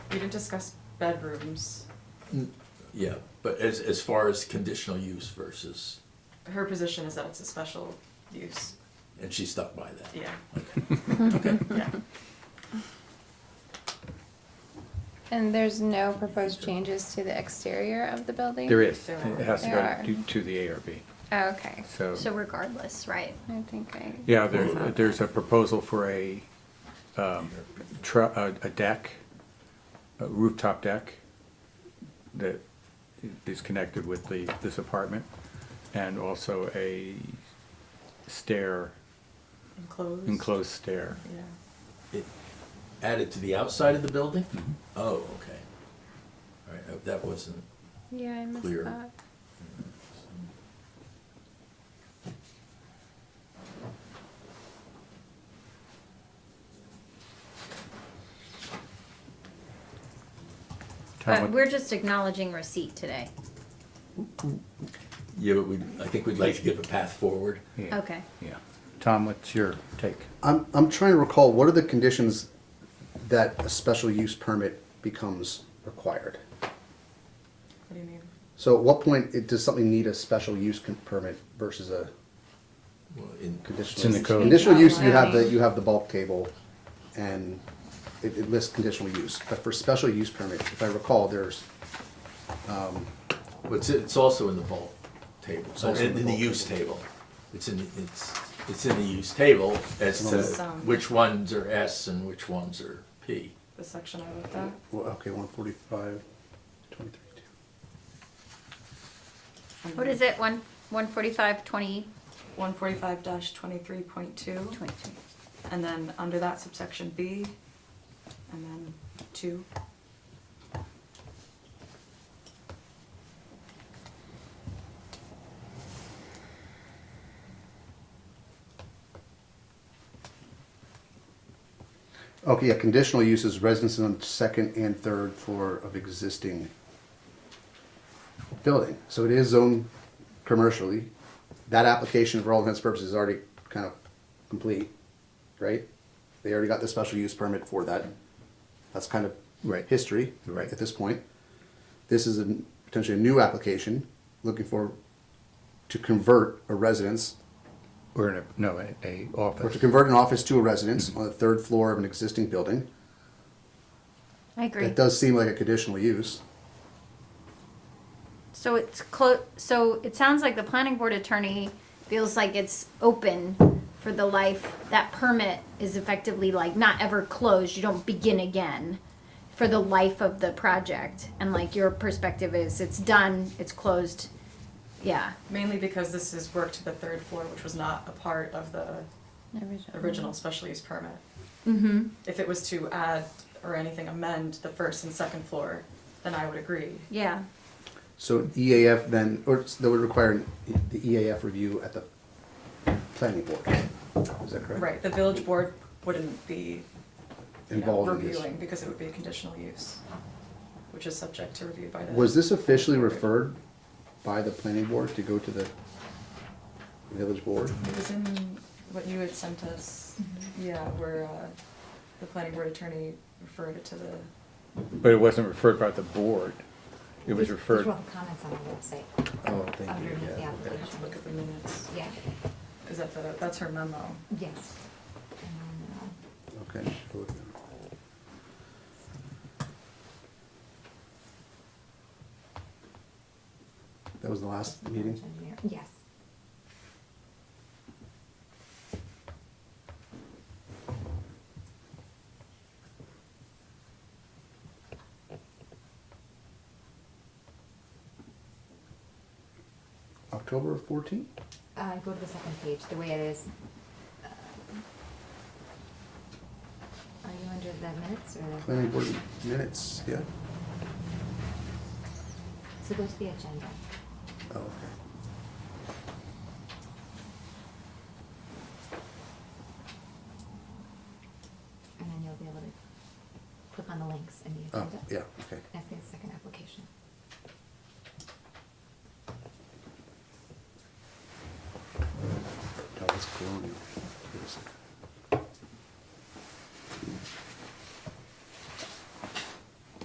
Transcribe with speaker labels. Speaker 1: We didn't discuss bedrooms.
Speaker 2: Yeah, but as, as far as conditional use versus,
Speaker 1: Her position is that it's a special use,
Speaker 2: and she stuck by that.
Speaker 1: yeah,
Speaker 2: Okay,
Speaker 1: yeah.
Speaker 3: And there's no proposed changes to the exterior of the building?
Speaker 4: There is,
Speaker 1: There
Speaker 4: it has to
Speaker 3: There
Speaker 4: go
Speaker 3: are.
Speaker 4: to, to the ARB,
Speaker 3: Oh, okay.
Speaker 4: so.
Speaker 5: So regardless, right?
Speaker 3: I think I,
Speaker 4: Yeah, there, there's a proposal for a, um, tru, a, a deck, a rooftop deck that is connected with the, this apartment, and also a stair,
Speaker 1: Enclosed.
Speaker 4: enclosed stair.
Speaker 5: Uh,
Speaker 1: Yeah.
Speaker 2: It Added to the outside of the building? Oh, okay. All right, uh, that wasn't,
Speaker 3: yeah, I missed
Speaker 2: Clear.
Speaker 3: that.
Speaker 4: Tom,
Speaker 5: But
Speaker 4: what-
Speaker 5: we're just acknowledging receipt today.
Speaker 2: yeah, but we, I think we'd like to give a path forward.
Speaker 4: yeah,
Speaker 5: Okay.
Speaker 4: Yeah, Tom, what's your take?
Speaker 6: I'm, I'm trying to recall, what are the conditions that a special use permit becomes required?
Speaker 1: What do you mean?
Speaker 6: So at what point it, does something need a special use con- permit versus a
Speaker 2: Well, in-
Speaker 6: conditional?
Speaker 4: It's in the
Speaker 6: use?
Speaker 4: code.
Speaker 6: Conditional use, you have the, you have the bulk table and it, it lists conditional use. But for special use permit, if I recall, there's,
Speaker 2: Well, It's, it's also in the bulk table,
Speaker 6: also in
Speaker 2: in,
Speaker 6: the
Speaker 2: in the
Speaker 6: bulk
Speaker 2: use table. It's in, it's, it's in the use table as to
Speaker 1: Some.
Speaker 2: which ones are S and which ones are P.
Speaker 1: The section I looked at,
Speaker 6: well, okay, one forty-five, twenty-three, two.
Speaker 5: What is it? One, one forty-five, twenty,
Speaker 1: one forty-five twenty-three point two,
Speaker 5: twenty-two.
Speaker 1: and then under that subsection B, and then two.
Speaker 6: Okay, yeah, conditional uses residences on the second and third floor of existing building. So it is zoned commercially. That application for all intents and purposes is already kind of complete, right? They already got the special use permit for that. That's kind of
Speaker 4: Right.
Speaker 6: history
Speaker 4: Right.
Speaker 6: at this point. This is a potentially a new application looking for to convert a residence
Speaker 4: Or in a, no, a, a
Speaker 6: or to
Speaker 4: office.
Speaker 6: convert an office to a residence on the third floor of an existing building.
Speaker 5: I agree.
Speaker 6: That does seem like a conditional use.
Speaker 5: So it's close, so it sounds like the planning board attorney feels like it's open for the life. That permit is effectively like not ever closed. You don't begin again for the life of the project. And like your perspective is it's done, it's closed. Yeah.
Speaker 1: Mainly because this is work to the third floor, which was not a part of the original special use permit.
Speaker 5: Mm-hmm.
Speaker 1: If it was to add or anything amend the first and second floor, then I would agree.
Speaker 5: Yeah.
Speaker 6: So EAF then, or that would require an- E, the EAF review at the planning board. Is that correct?
Speaker 1: Right, the village board wouldn't be, you know,
Speaker 6: Involved in this.
Speaker 1: reviewing, because it would be a conditional use, which is subject to review by the.
Speaker 6: Was this officially referred by the planning board to go to the village board?
Speaker 1: It was in what you had sent us, yeah, where, uh, the planning board attorney referred it to the,
Speaker 4: But it wasn't referred by the board, it was referred.
Speaker 7: Visual comments on the website,
Speaker 6: Oh, thank you,
Speaker 7: underneath the
Speaker 6: yeah.
Speaker 1: I have to look
Speaker 7: application.
Speaker 1: at the minutes.
Speaker 7: Yeah,
Speaker 1: Is that the, that's her memo.
Speaker 7: yes. And, uh,
Speaker 6: Okay. That was the last meeting?
Speaker 7: engineer- Yes.
Speaker 6: October fourteenth?
Speaker 7: Uh, go to the second page, the way it is. uh, Are you under the minutes or?
Speaker 6: Planning board minutes, yeah?
Speaker 7: So go to the agenda.
Speaker 6: Oh, okay.
Speaker 7: And then you'll be able to click on the links in the
Speaker 6: Oh,
Speaker 7: agenda.
Speaker 6: yeah, okay.
Speaker 7: Okay.